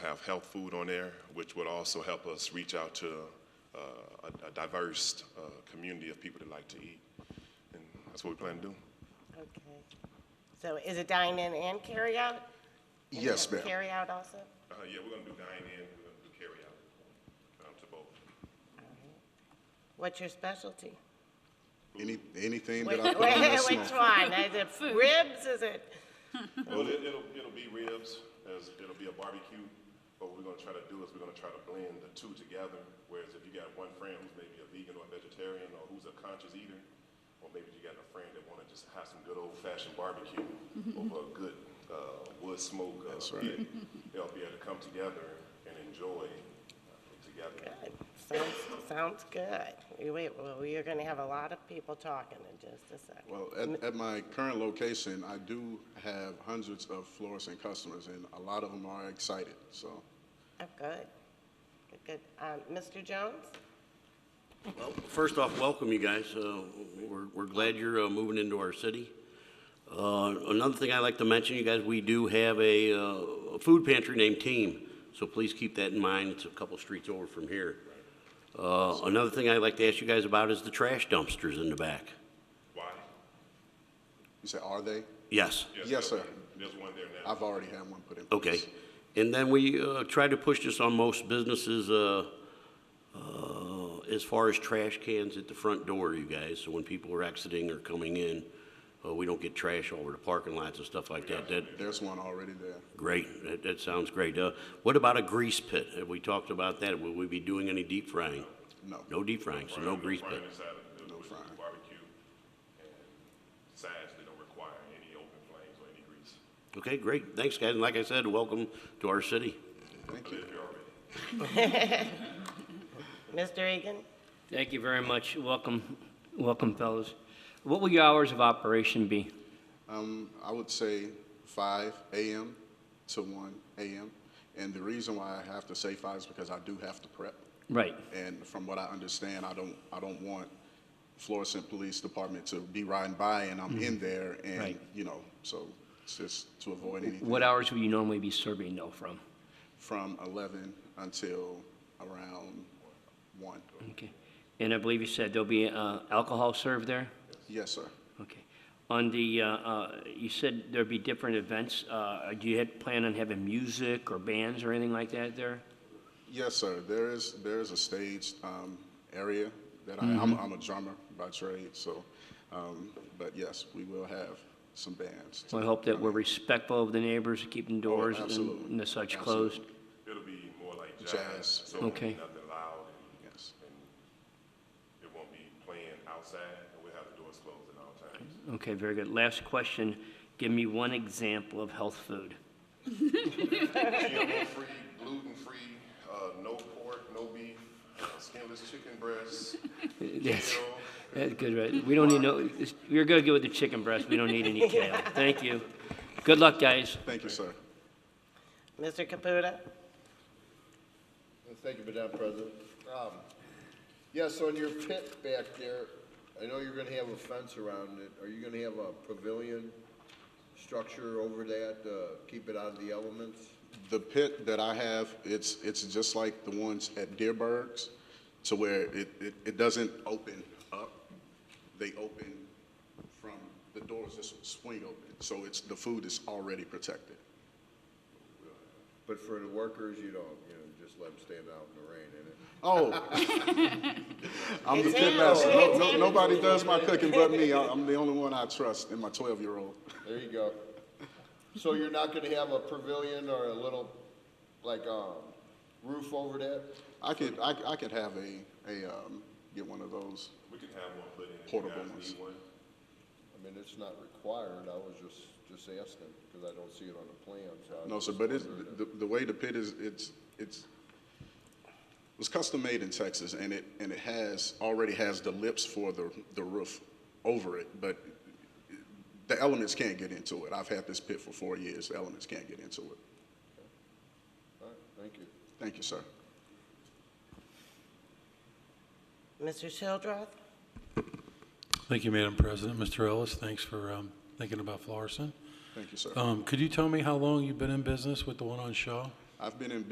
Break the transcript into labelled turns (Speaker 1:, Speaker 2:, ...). Speaker 1: have health food on there, which would also help us reach out to uh, a- a diverse uh, community of people that like to eat. And that's what we plan to do.
Speaker 2: Okay. So is it dine-in and carry-out? And you
Speaker 3: Yes,
Speaker 2: have
Speaker 3: ma'am.
Speaker 2: Carry-out also?
Speaker 1: Uh, Yeah, we're going to do dine-in, we're going to do carry-out, um, to both.
Speaker 2: What's your specialty?
Speaker 3: Any, anything
Speaker 2: Which
Speaker 3: that I put on that
Speaker 2: which
Speaker 3: smoke.
Speaker 2: one? Is it ribs, is it?
Speaker 1: Well, it, it'll, it'll be ribs, as, it'll be a barbecue, but what we're gonna try to do is we're gonna try to blend the two together, whereas if you got one friend who's maybe a vegan or a vegetarian, or who's a conscious eater, or maybe you got a friend that wanna just have some good old-fashioned barbecue over a good, uh, wood smoke, uh, pit, they'll be able to come together and enjoy uh, together.
Speaker 2: Good. Sounds, sounds good. You Wait, well, you're gonna have a lot of people talking in just a second.
Speaker 3: Well, at, at my current location, I do have hundreds of florist customers, and a lot of them are excited, so.
Speaker 2: Oh, good. Good, good. Um, Mr. Jones?
Speaker 4: Well, first off, welcome you guys. Uh, We're we're glad you're uh, moving into our city. Uh, Another thing I'd like to mention, you guys, we do have a uh, a food pantry named Team, so please keep that in mind. It's a couple streets over from here. Uh, Another thing I'd like to ask you guys about is the trash dumpsters in the back.
Speaker 1: Why?
Speaker 3: You say, are they?
Speaker 4: Yes.
Speaker 3: Yes,
Speaker 1: there'll
Speaker 3: sir.
Speaker 1: be- There's one there now.
Speaker 3: I've already had one put in.
Speaker 4: Okay.
Speaker 3: place.
Speaker 4: And then we uh, try to push this on most businesses uh, uh, as far as trash cans at the front door, you guys. So when people are exiting or coming in, uh, we don't get trash all over the parking lots and stuff like that. That,
Speaker 3: There's one already there.
Speaker 4: great. That, that sounds great. Uh, What about a grease pit? Have we talked about that? Will we be doing any deep frying?
Speaker 3: No.
Speaker 4: No deep frying, so no grease pit.
Speaker 1: Frying inside of the,
Speaker 3: No
Speaker 1: with
Speaker 3: frying.
Speaker 1: barbecue, and sides, they don't require any open flames or any grease.
Speaker 4: Okay, great. Thanks, guys. And like I said, welcome to our city.
Speaker 1: I live here already.
Speaker 2: Mr. Egan?
Speaker 5: Thank you very much. Welcome, welcome, fellows. What will your hours of operation be?
Speaker 3: Um, I would say five AM to one AM. And the reason why I have to say five is because I do have to prep.
Speaker 5: Right,
Speaker 3: And from what I understand, I don't, I don't want Florissant Police Department to be riding by and I'm in there and,
Speaker 5: Mm-hmm. Right.
Speaker 3: you know, so it's just to avoid anything.
Speaker 5: what hours will you normally be serving though from?
Speaker 3: From eleven until around one.
Speaker 5: Okay. And I believe you said there'll be uh, alcohol served there?
Speaker 3: Yes, sir.
Speaker 5: Okay. On the, uh, uh, you said there'd be different events. Uh, Do you had- plan on having music or bands or anything like that there?
Speaker 3: Yes, sir. There is, there is a staged um, area that I, I'm,
Speaker 5: Mm-hmm.
Speaker 3: I'm a drummer by trade, so, um, but yes, we will have some bands.
Speaker 5: So I hope that we're respectful of the neighbors, keeping doors and-
Speaker 3: Oh, absolutely.
Speaker 5: and the such
Speaker 3: Absolutely.
Speaker 5: closed.
Speaker 1: It'll be more like
Speaker 3: Jazz.
Speaker 1: jazz, so it'll be
Speaker 5: Okay.
Speaker 1: nothing loud, and
Speaker 3: Yes.
Speaker 1: it won't be playing outside, and we'll have the doors closed at all times.
Speaker 5: Okay, very good. Last question. Give me one example of health food.
Speaker 1: GMO-free, gluten-free, uh, no pork, no beef, uh, skinless chicken breasts,
Speaker 5: That's,
Speaker 1: kale.
Speaker 5: that's good, right? We don't need no, you're gonna go with the chicken breast, we don't need any kale. Thank you. Good luck, guys.
Speaker 3: Thank you, sir.
Speaker 2: Mr. Caputa?
Speaker 6: Thank you, Madam President. Um, Yes, on your pit back there, I know you're gonna have a fence around it. Are you gonna have a pavilion structure over that, uh, keep it out of the elements?
Speaker 3: The pit that I have, it's, it's just like the ones at Deerberg's, to where it, it, it doesn't open up. They open from, the doors just swing open, so it's, the food is already protected.
Speaker 6: But for the workers, you don't, you know, just let them stand out in the rain, innit?
Speaker 3: Oh. I'm the
Speaker 2: It's
Speaker 3: pit
Speaker 2: him.
Speaker 3: master. No,
Speaker 2: It's
Speaker 3: no,
Speaker 2: him.
Speaker 3: nobody does my cooking but me. I- I'm the only one I trust and my 12-year-old.
Speaker 6: There you go. So you're not gonna have a pavilion or a little, like, um, roof over that?
Speaker 3: I could, I, I could have a, a, um, get one of those.
Speaker 1: We can have one put in if you
Speaker 3: Portable
Speaker 1: guys
Speaker 3: ones.
Speaker 1: need one.
Speaker 6: I mean, it's not required. I was just, just asking, because I don't see it on the plan, so. I
Speaker 3: No,
Speaker 6: was
Speaker 3: sir,
Speaker 6: just
Speaker 3: but it's,
Speaker 6: wondering.
Speaker 3: the, the way the pit is, it's, it's, it was custom made in Texas and it, and it has, already has the lips for the, the roof over it, but the elements can't get into it. I've had this pit for four years. The elements can't get into it.
Speaker 6: All right, thank you.
Speaker 3: Thank you, sir.
Speaker 2: Mr. Childrath?
Speaker 7: Thank you, Madam President. Mr. Ellis, thanks for um, thinking about Florissant.
Speaker 3: Thank you, sir.
Speaker 7: Um, Could you tell me how long you've been in business with the one on Shaw?
Speaker 3: I've been in